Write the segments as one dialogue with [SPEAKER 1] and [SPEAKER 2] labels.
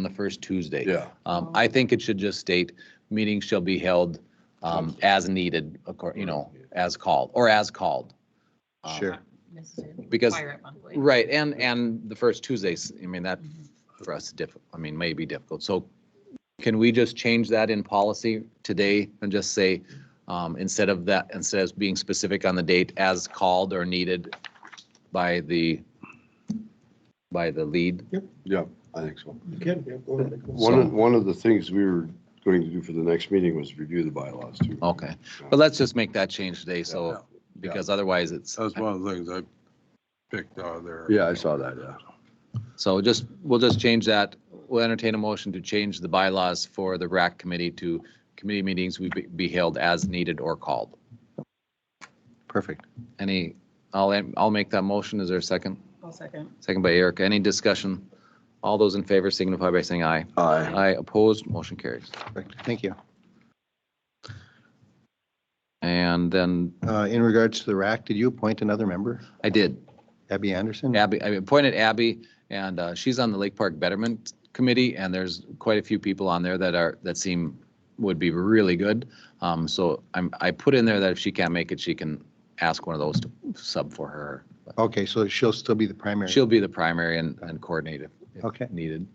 [SPEAKER 1] on the first Tuesday.
[SPEAKER 2] Yeah,
[SPEAKER 1] Um, I think it should just state, meetings shall be held, um, as needed, accor, you know, as called, or as called. Um,
[SPEAKER 3] Sure.
[SPEAKER 4] necessarily
[SPEAKER 1] Because-
[SPEAKER 4] require it monthly.
[SPEAKER 1] Right, and, and the first Tuesdays, I mean, that
[SPEAKER 4] Mhm.
[SPEAKER 1] for us, diff, I mean, may be difficult. So can we just change that in policy today and just say, um, instead of that, instead of being specific on the date as called or needed by the, by the lead?
[SPEAKER 2] yeah, I think so.
[SPEAKER 3] You can, yeah, go ahead. Nicholas.
[SPEAKER 2] One of, one of the things we were going to do for the next meeting was review the bylaws too.
[SPEAKER 1] Okay, but let's just make that change today, so,
[SPEAKER 2] Yeah.
[SPEAKER 1] because otherwise it's,
[SPEAKER 5] That's one of the things I picked out of there.
[SPEAKER 2] Yeah, I saw that, yeah.
[SPEAKER 1] so just, we'll just change that. We'll entertain a motion to change the bylaws for the RAC committee to committee meetings we be- be held as needed or called.
[SPEAKER 3] Perfect.
[SPEAKER 1] Any, I'll, I'll make that motion. Is there a second?
[SPEAKER 4] I'll second.
[SPEAKER 1] Second by Erica. Any discussion? All those in favor signify by saying aye.
[SPEAKER 2] Aye.
[SPEAKER 1] Aye opposed, motion carries.
[SPEAKER 3] Perfect. Thank you.
[SPEAKER 1] And then
[SPEAKER 3] Uh, In regards to the rack, did you appoint another member,
[SPEAKER 1] I did,
[SPEAKER 3] Abby Anderson?
[SPEAKER 1] Abby, I appointed Abby, and uh, she's on the Lake Park Betterment Committee, and there's quite a few people on there that are, that seem, would be really good. Um, So I'm, I put in there that if she can't make it, she can ask one of those to sub for her. But
[SPEAKER 3] Okay, so she'll still be the primary.
[SPEAKER 1] She'll be the primary and and coordinate if- if
[SPEAKER 3] Okay.
[SPEAKER 1] needed.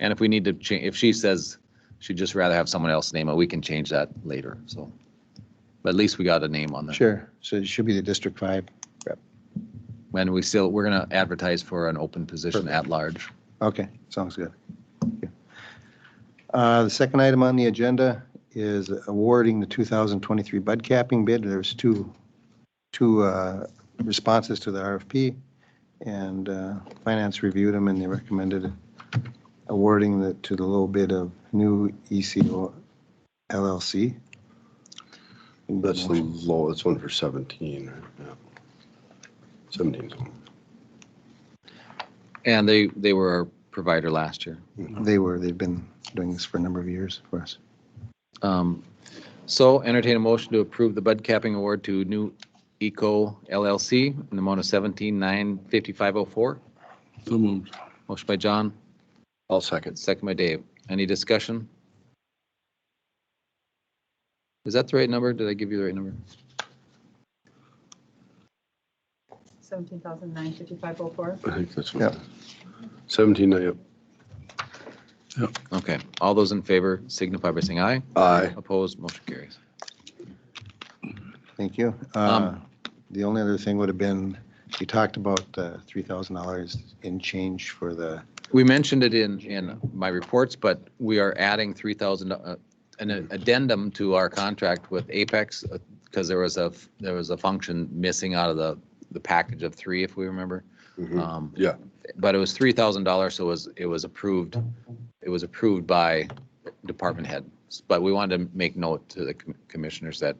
[SPEAKER 1] And if we need to change, if she says she'd just rather have someone else name it, we can change that later, so. But at least we got a name on there.
[SPEAKER 3] Sure. So she'll be the District Five.
[SPEAKER 1] And we still, we're going to advertise for an open position at large.
[SPEAKER 3] Okay, sounds good. Thank you. Uh, The second item on the agenda is awarding the 2023 bud capping bid. There's two, two uh, responses to the RFP, and uh, Finance reviewed them, and they recommended awarding the, to the low bid of new E ECO LLC.
[SPEAKER 2] That's the low, that's one for 17. yeah. 17. 's one.
[SPEAKER 1] And they, they were our provider last year.
[SPEAKER 3] They were, they've been doing this for a number of years for us.
[SPEAKER 1] Um, So entertain a motion to approve the bud capping award to New Eco LLC in the amount of seventeen nine fifty-five oh four.
[SPEAKER 5] So moved.
[SPEAKER 1] Motion by John,
[SPEAKER 2] I'll second.
[SPEAKER 1] second by Dave. Any discussion? Is that the right number? Did I give you the right number?
[SPEAKER 4] Seventeen thousand nine fifty-five oh four.
[SPEAKER 2] I think that's
[SPEAKER 3] Yep.
[SPEAKER 2] one. 17, yep.
[SPEAKER 1] Okay, all those in favor signify by saying aye.
[SPEAKER 2] Aye.
[SPEAKER 1] Opposed, motion carries.
[SPEAKER 3] Thank you. Uh, The only other thing would have been, you talked about the $3,000 in change for the,
[SPEAKER 1] We mentioned it in, in my reports, but we are adding 3,000, uh, an addendum to our contract with Apex because there was a, there was a function missing out of the, the package of three, if we remember.
[SPEAKER 2] Mhm.
[SPEAKER 1] Um,
[SPEAKER 2] Yeah,
[SPEAKER 1] But it was $3,000, so it was, it was approved, it was approved by department head. But we wanted to make note to the com- commissioners that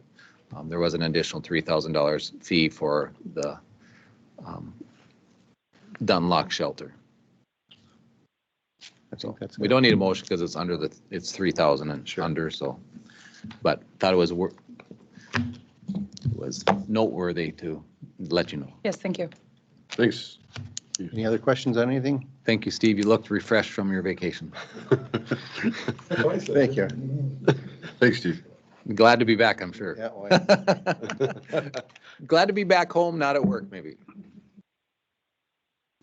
[SPEAKER 1] um, there was an additional $3,000 fee for the um, Dunlock shelter.
[SPEAKER 3] I think that's.
[SPEAKER 1] We
[SPEAKER 3] it.
[SPEAKER 1] don't need a motion because it's under the, it's three thousand and
[SPEAKER 3] Sure.
[SPEAKER 1] under, so, but thought it was wor- was noteworthy to let you know.
[SPEAKER 4] Yes, thank you.
[SPEAKER 2] thanks.
[SPEAKER 3] Any other questions on anything?
[SPEAKER 1] Thank you, Steve. You looked refreshed from your vacation.
[SPEAKER 3] Thank you.
[SPEAKER 2] Thanks, Steve.
[SPEAKER 1] Glad to be back, I'm sure.
[SPEAKER 3] Yeah, well,
[SPEAKER 1] Glad to be back home, not at work, maybe.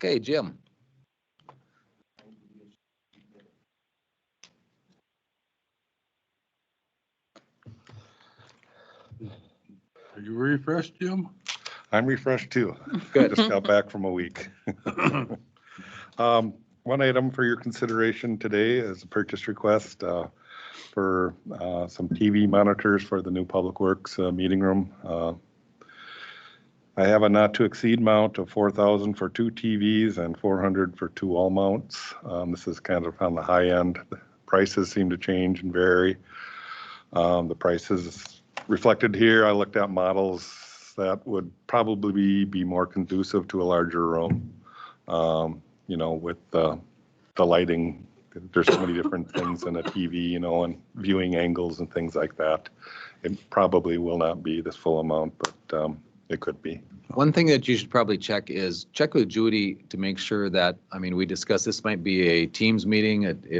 [SPEAKER 1] Okay, Jim.
[SPEAKER 5] Are you refreshed, Jim?
[SPEAKER 6] I'm refreshed too.
[SPEAKER 1] Good.
[SPEAKER 6] Just got back from a week. Um, One item for your consideration today is a purchase request uh, for uh, some TV monitors for the new Public Works uh, meeting room. Uh, I have a not to exceed amount of 4,000 for two TVs and 400 for two all mounts. Um, This is kind of on the high end. Prices seem to change and vary. Um, The prices reflected here, I looked at models that would probably be, be more conducive to a larger room. Um, You know, with the, the lighting, there's so many different things in a TV, you know, and viewing angles and things like that. It probably will not be this full amount, but um, It could be.
[SPEAKER 1] One thing that you should probably check is check with Judy to make sure that, I mean, we discussed, this might be a Teams meeting. It, it